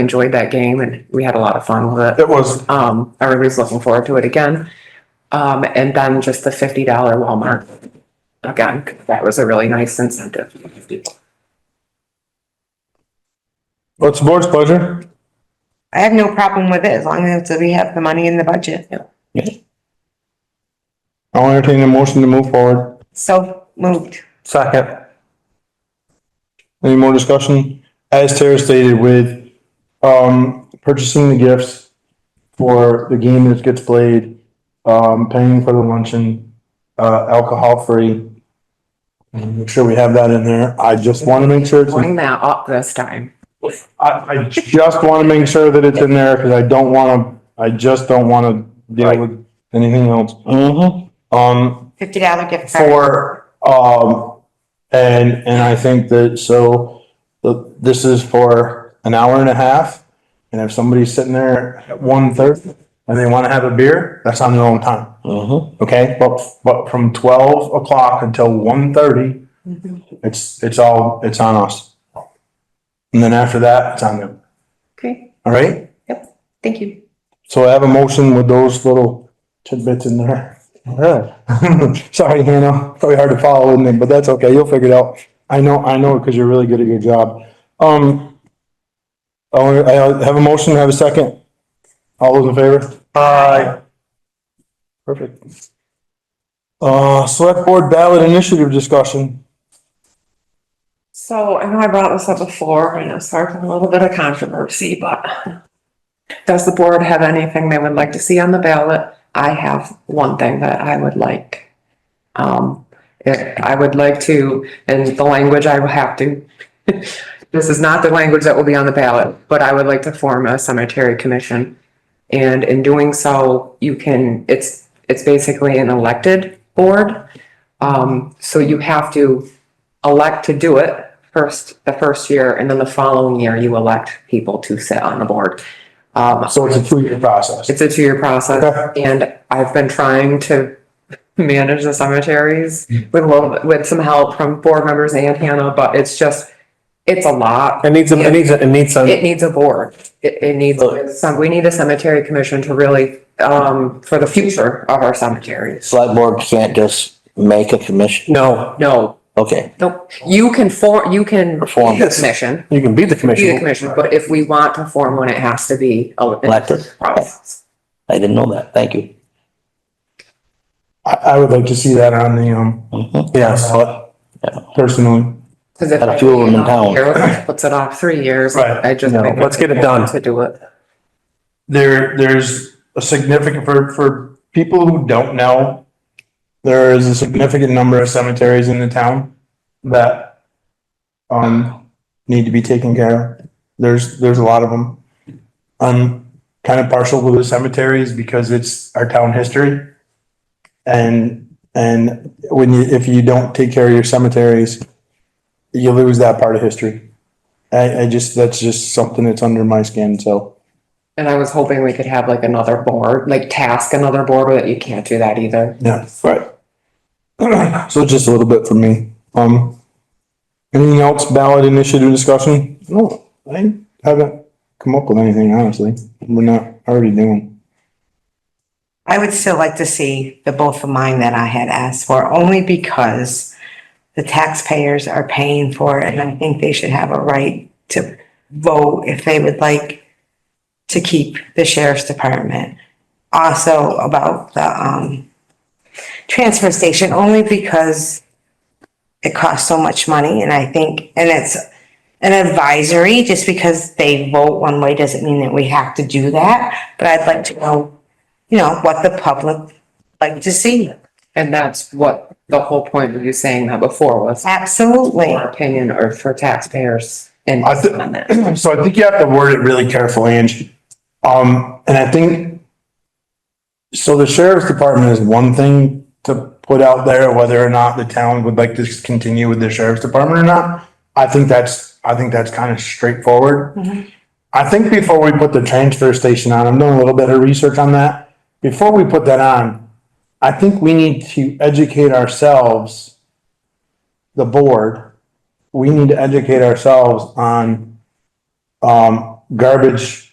enjoyed that game and we had a lot of fun with it. It was, Um, everybody's looking forward to it again. Um, and then just the fifty dollar Walmart. Again, that was a really nice incentive. what's the board's pleasure? I have no problem with it as long as we have the money in the budget. I'll entertain a motion to move forward. So moved. Second. Any more discussion? As Tara stated with, um, purchasing the gifts for the game that gets played, um, paying for the luncheon, uh, alcohol free. And make sure we have that in there. I just want to make sure it's, I, Bring that up Oh, this time. I just want to make sure that it's in there because I don't want to, I just don't want to deal with anything else. Um, Fifty dollar gift card. for, um, and, and I think that, so, the- this is for an hour and a half. And if somebody's sitting there at one thirty and they wanna have a beer, that's on their own time, Uh-huh. okay? But, but from twelve o'clock until one thirty, Mhm. it's, it's all, it's on us. And then after that, it's on them, Okay, all right? thank you. So I have a motion with those little tidbits in there. Sorry, Hannah, probably hard to follow, isn't it? But that's okay, you'll figure it out. I know, I know, because you're really good at your job. Um, I wanna- I have a motion, have a second. All those in favor? Aye. Perfect. Uh, select board ballot initiative discussion. So I know I brought this up before and it's sparked a little bit of controversy, but Does the board have anything they would like to see on the ballot? I have one thing that I would like. Um, eh, I would like to, and the language I will have to. This is not the language that will be on the ballot, but I would like to form a cemetery commission. And in doing so, you can, it's, it's basically an elected board. Um, so you have to elect to do it first, the first year, and then the following year you elect people to sit on the board. Um, So it's a two-year process. it's a two-year process, Okay. and I've been trying to manage the cemeteries with a little, bit- with some help from board members and Hannah, but it's just, it's a lot. It needs, a- it needs, a- it needs some, It needs a board. It, it needs some, we need a cemetery commission to really, um, for the future of our cemeteries. Select board can't just make a commission, no, No, okay, no, you can for, you can be Reform. the commission, you can be the be the commission. commission, but if we want to form one, it has to be elected. Elected. process. I didn't know that, thank you. I, I would like to see that on the, um, Mhm. yeah, ballot, Yeah. personally. Cause if. Got a few of 'em in town. Eric Puts it off three years. Right. I just. No, think let's get it it's done. To do it. there, there's a significant, for, for people who don't know, there is a significant number of cemeteries in the town that, um, need to be taken care of. There's, there's a lot of them. I'm kind of partial to the cemeteries because it's our town history. And, and when you, if you don't take care of your cemeteries, you lose that part of history. I, I just, that's just something that's under my skin, so. And I was hoping we could have like another board, like task another board, but you can't do that either. Yeah, right. So just a little bit from me. Um, anything else ballot initiative discussion? No, I haven't come up with anything, honestly. We're not already doing. I would still like to see the both of mine that I had asked for, only because the taxpayers are paying for it, and I think they should have a right to vote if they would like to keep the sheriff's department. Also about the, um, transfer station, only because it costs so much money, and I think, and it's an advisory, just because they vote one way doesn't mean that we have to do that, but I'd like to know you know, what the public like to see. And that's what the whole point of you saying that before was Absolutely. for opinion or for taxpayers and I thi- on that. So I think you have to word it really carefully, Angie. Um, and I think so the sheriff's department is one thing to put out there, whether or not the town would like to continue with the sheriff's department or not. I think that's, I think that's kind of straightforward. Mhm. I think before we put the transfer station on, I'm doing a little bit of research on that. Before we put that on, I think we need to educate ourselves, the board, we need to educate ourselves on um, garbage